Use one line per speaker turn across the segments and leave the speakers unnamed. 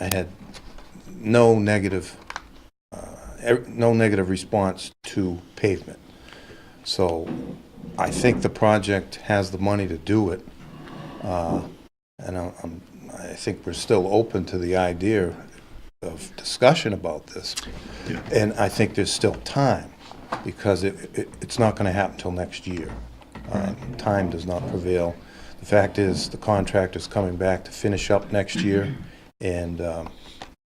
I had no negative, uh, ev- no negative response to pavement. So I think the project has the money to do it. Uh, And I'm- I'm, I think we're still open to the idea of discussion about this. And I think there's still time, because it, it- it's not going to happen till next year. Uh, Time does not prevail. The fact is, the contractor's coming back to finish up next year, and um,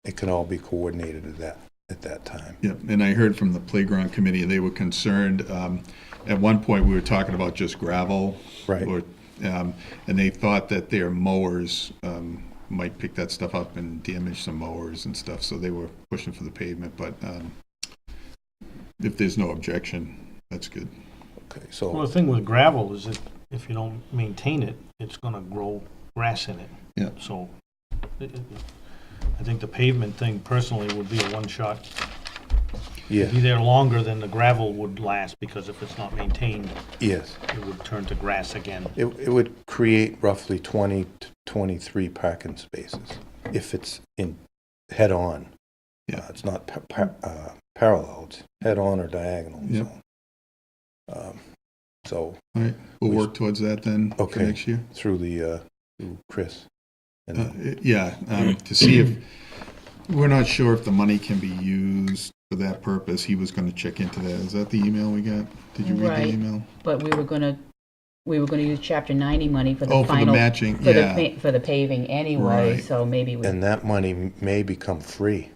it can all be coordinated at that, at that time.
Yeah, and I heard from the playground committee, they were concerned, um, at one point, we were talking about just gravel.
Right.
Or, um, and they thought that their mowers, um, might pick that stuff up and damage some mowers and stuff, so they were pushing for the pavement, but, um, if there's no objection, that's good.
Okay,
Well,
so,
the thing with gravel is that if you don't maintain it, it's gonna grow grass in it.
Yeah.
So, it- it- I think the pavement thing personally would be a one-shot.
yeah,
It'd Be there longer than the gravel would last, because if it's not maintained,
yes.
it would turn to grass again.
It, it would create roughly 20 to 23 parking spaces if it's in, head-on.
Yeah.
Uh, It's not pa- pa- uh, parallel, it's head-on or diagonal.
Yeah.
so. Um, So
All right, we'll work towards that then for
Okay.
next year.
through the, uh, through Chris. And
Uh,
then-
Yeah, um, to see if, we're not sure if the money can be used for that purpose. He was going to check into that. Is that the email we got? Did you read
Right.
the email?
But we were gonna, we were gonna use chapter ninety money
Oh,
for the
for the
final,
matching,
for the,
yeah.
pa- for the paving anyway,
Right.
so maybe we,
And that money m- may become free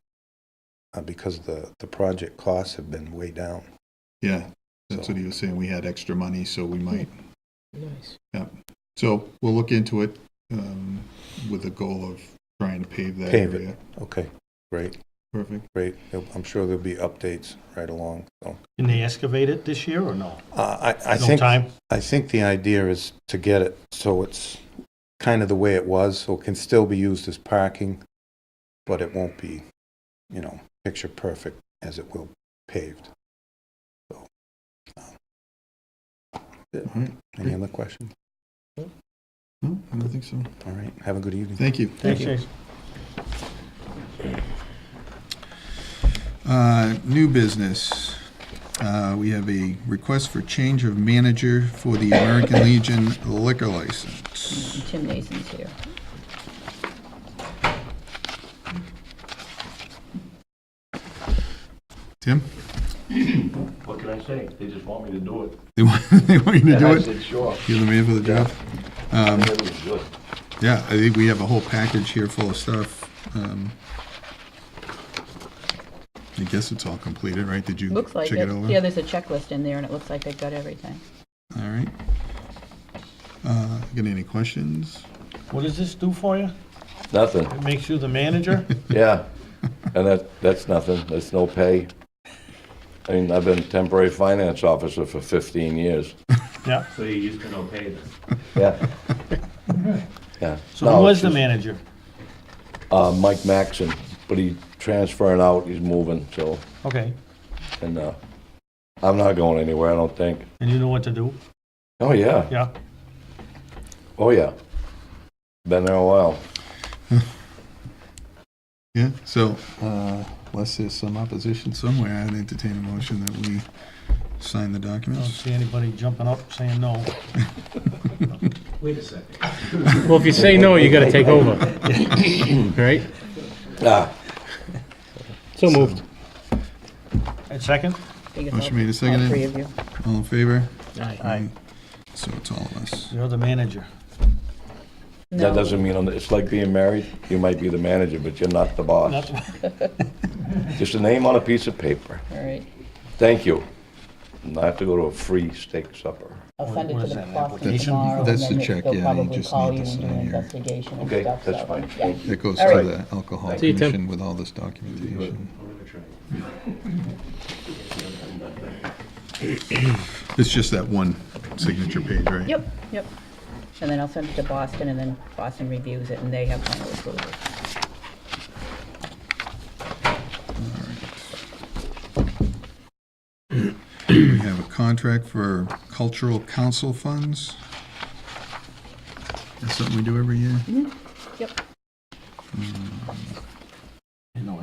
uh, because the, the project costs have been way down.
Yeah, that's
So-
what he was saying. We had extra money, so we might.
Nice.
Yeah, so we'll look into it um, with the goal of trying to pave that
Pave
area.
it. Okay, great,
Perfect.
great. There'll- I'm sure there'll be updates right along, so.
Can they excavate it this year or no?
Uh, I, I
No
think,
time?
I think the idea is to get it so it's kind of the way it was, so it can still be used as parking, but it won't be, you know, picture perfect as it will paved. So, um, yeah.
All right.
Any other questions?
No, I don't think so.
All right, have a good evening.
Thank you.
Thanks, Jason.
Uh, New business. Uh, We have a request for change of manager for the American Legion liquor license.
Tim Nason's here.
Tim?
What can I say? They just want me to do it.
They want, they want you to
And
do
I
it?
said, sure.
You're the man for the job?
And it was good.
Yeah, I think we have a whole package here full of stuff. Um, I guess it's all completed, right? Did you
Looks like
check it
it,
over?
yeah, there's a checklist in there and it looks like they've got everything.
All right. Uh, Got any questions?
What does this do for you?
Nothing,
It makes you the manager?
yeah. And that, that's nothing. That's no pay. I mean, I've been temporary finance officer for 15 years.
Yeah.
So you used to no pay then?
Yeah. Yeah.
So who
No,
was the
just,
manager?
Uh, Mike Maxon, but he transferring out, he's moving, so,
Okay.
and, uh, I'm not going anywhere, I don't think.
And you know what to do?
Oh, yeah.
Yeah.
Oh, yeah. Been there a while.
Yeah, so uh, unless there's some opposition somewhere, I'd entertain a motion that we sign the
I don't
documents.
see anybody jumping up saying no.
Well, if you say no, you gotta take over. Right?
Ah,
So moved.
And second?
I think it's
Motion
all-
made and seconded.
All three of you.
All in favor?
Aye.
So it's all of us.
You're the manager.
that
No.
doesn't mean, I'm- it's like being married, you might be the manager, but you're not the boss.
That's-
Just a name on a piece of paper.
All right.
Thank you. And I have to go to a free steak supper.
I'll send it
What
to
is
the
that, an
Boston
application?
tomorrow. and
That's the
then
check,
they'll
yeah, you
probably
just
call
need
you
to
and do an
sign here.
investigation and
Okay,
stuff,
that's
so,
fine.
yeah.
It goes
All
to
right.
the alcohol
See you, Tim.
commission with all this documentation. It's just that one signature page, right?
Yep, yep. And then I'll send it to Boston and then Boston reviews it and they have final approval.
We have a contract for cultural council funds. That's something we do every year.
Yep.